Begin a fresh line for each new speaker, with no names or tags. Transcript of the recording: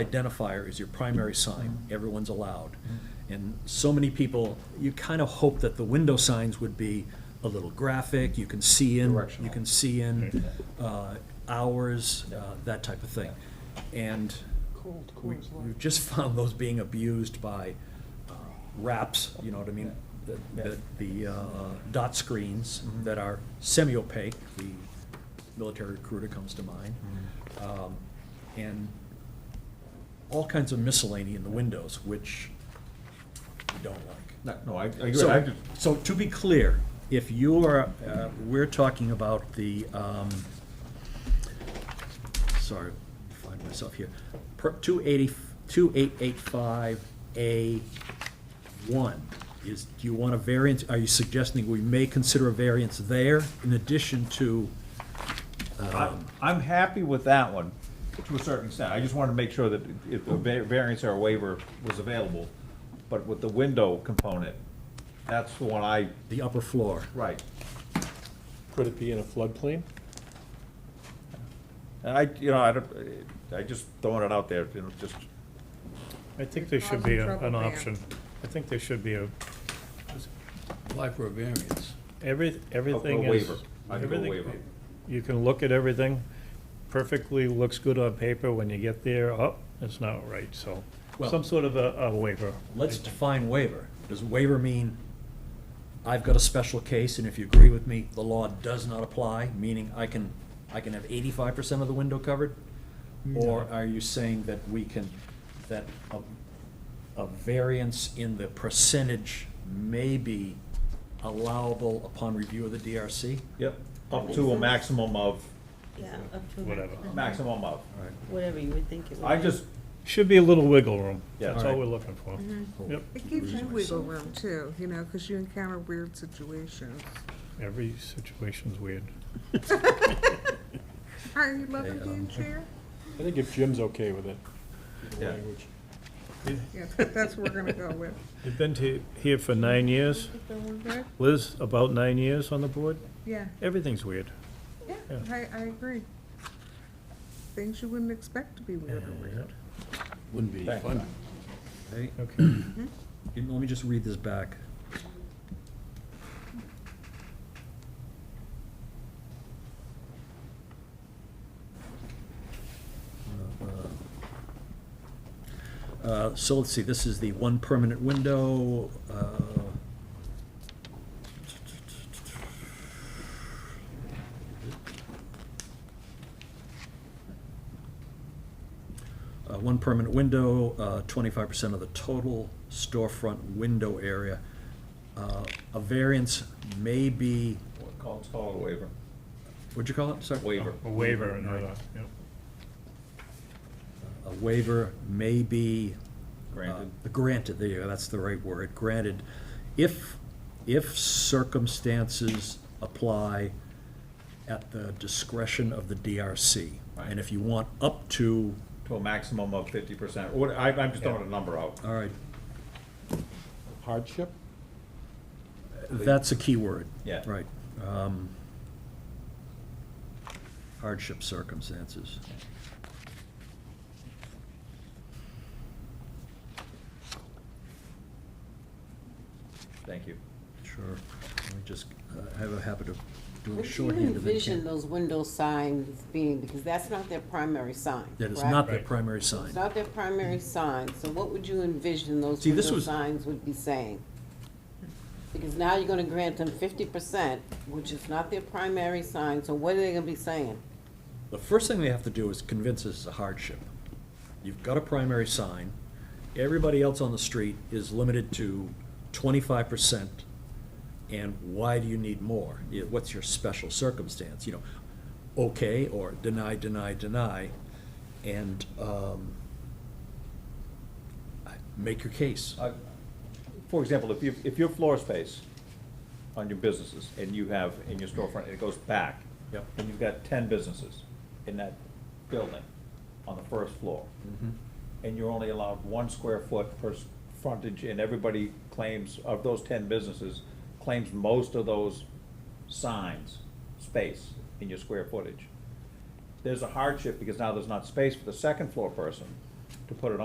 identifier is your primary sign, everyone's allowed. And so many people, you kind of hope that the window signs would be a little graphic, you can see in, you
Directional.
can see in uh, hours, uh, that type of thing. And
Cold,
we- we've just found those being abused by uh, wraps, you know what I mean? The- The, the uh, dot screens that are semi-opaque, the military recruiter comes to mind. Um, And all kinds of miscellany in the windows, which we don't like.
No, no, I, I agree. I
So,
just-
so to be clear, if you are, uh, we're talking about the, um, sorry, find myself here, per, two eighty, two eight eight five A one, is, do you want a variance, are you suggesting we may consider a variance there in addition to, um,
I'm, I'm happy with that one, to a certain extent. I just wanted to make sure that if the va- variance or waiver was available. But with the window component, that's the one I,
the upper floor?
right.
Could it be in a floodplain?
And I, you know, I don't, I just throwing it out there, you know, just,
I think there should be a- an option. I think there should be a,
apply for a variance.
every, everything
a
is.
waiver. I can go
everything-
waiver.
You can look at everything, perfectly looks good on paper, when you get there, oh, it's not right, so,
Well-
some sort of a, a waiver.
Let's define waiver. Does waiver mean I've got a special case, and if you agree with me, the law does not apply, meaning I can, I can have eighty-five percent of the window covered? Or are you saying that we can, that a, a variance in the percentage may be allowable upon review of the DRC?
yep, up to a maximum of,
Yeah, up to.
Whatever.
maximum of.
Whatever you would think it would be.
I just,
Should be a little wiggle room,
Yeah.
that's all we're looking for.
Mm-hmm.
Yep,
It gives you wiggle room too, you know, because you encounter weird situations.
every situation's weird.
Are you loving being chair?
I think if Jim's okay with it, the
Yeah.
language.
Yeah, that's what we're gonna go with.
You've been to, here for nine years, Liz, about nine years on the board,
Yeah,
everything's weird.
yeah,
Yeah.
I, I agree. Things you wouldn't expect to be weird or weird.
Wouldn't be
Thank
fun.
Okay.
And Let me just read this back. Uh, So let's see, this is the one permanent window. uh, Uh, One permanent window, uh, twenty-five percent of the total storefront window area. Uh, A variance may be,
call, it's called a waiver,
what'd you call it, sorry?
waiver.
A waiver and, uh, yep.
A waiver may be. uh,
Granted.
Granted, there you go, that's the right word, granted. If, if circumstances apply at the discretion of the DRC.
Right.
And if you want up to,
To a maximum of fifty percent, what, I, I'm just throwing a number out.
all right,
Hardship?
That's a key word.
Yeah.
Right. Um, Hardship circumstances.
Thank you.
Sure. Let me just, uh, I have a habit of doing
What do you
shorthand of
envision
it.
those window signs being, because that's not their primary sign,
That is
correct?
not their
Right.
primary
It's
sign.
not their primary sign, so what would you envision those
See, this
window
was-
signs would be saying? Because now you're gonna grant them fifty percent, which is not their primary sign, so what are they gonna be saying?
The first thing they have to do is convince us it's a hardship. You've got a primary sign. Everybody else on the street is limited to twenty-five percent. And why do you need more? Yeah, What's your special circumstance? You know, okay, or deny, deny, deny. And, um, I- make your case.
Uh, For example, if you, if your floor space on your businesses and you have in your storefront, it goes back.
Yep.
And you've got ten businesses in that building on the first floor. And you're only allowed one square foot per s- frontage and everybody claims, of those ten businesses, claims most of those signs, space in your square footage. There's a hardship because now there's not space for the second floor person to put it